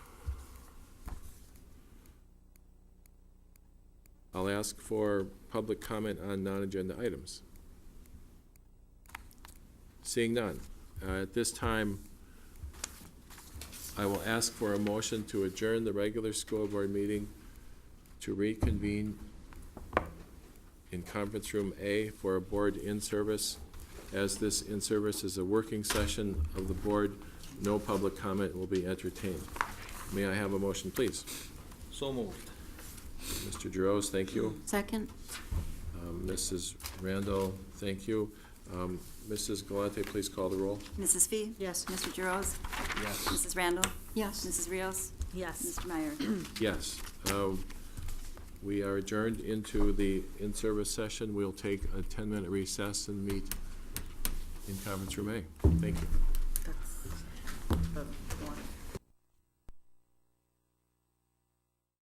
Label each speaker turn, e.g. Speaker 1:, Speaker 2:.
Speaker 1: ask for public comment on non-agenda items? Seeing none. Uh, At this time, I will ask for a motion to adjourn the regular school board meeting to reconvene in conference room A for a board in-service. As this in-service is a working session of the board, no public comment will be entertained. May I have a motion, please?
Speaker 2: So moved.
Speaker 1: Mr. Giroux, thank you.
Speaker 3: Second?
Speaker 1: Um, Mrs. Randall, thank you. Um, Mrs. Galante, please call the roll.
Speaker 4: Mrs. Fee?
Speaker 3: Yes.
Speaker 4: Mr. Giroux?
Speaker 2: Yes.
Speaker 4: Mrs. Randall?
Speaker 3: Yes.
Speaker 4: Mrs. Rios?
Speaker 3: Yes.
Speaker 4: Mr. Meyer?
Speaker 1: Yes. Um, We are adjourned into the in-service session. We'll take a 10-minute recess and meet in conference room A. Thank you.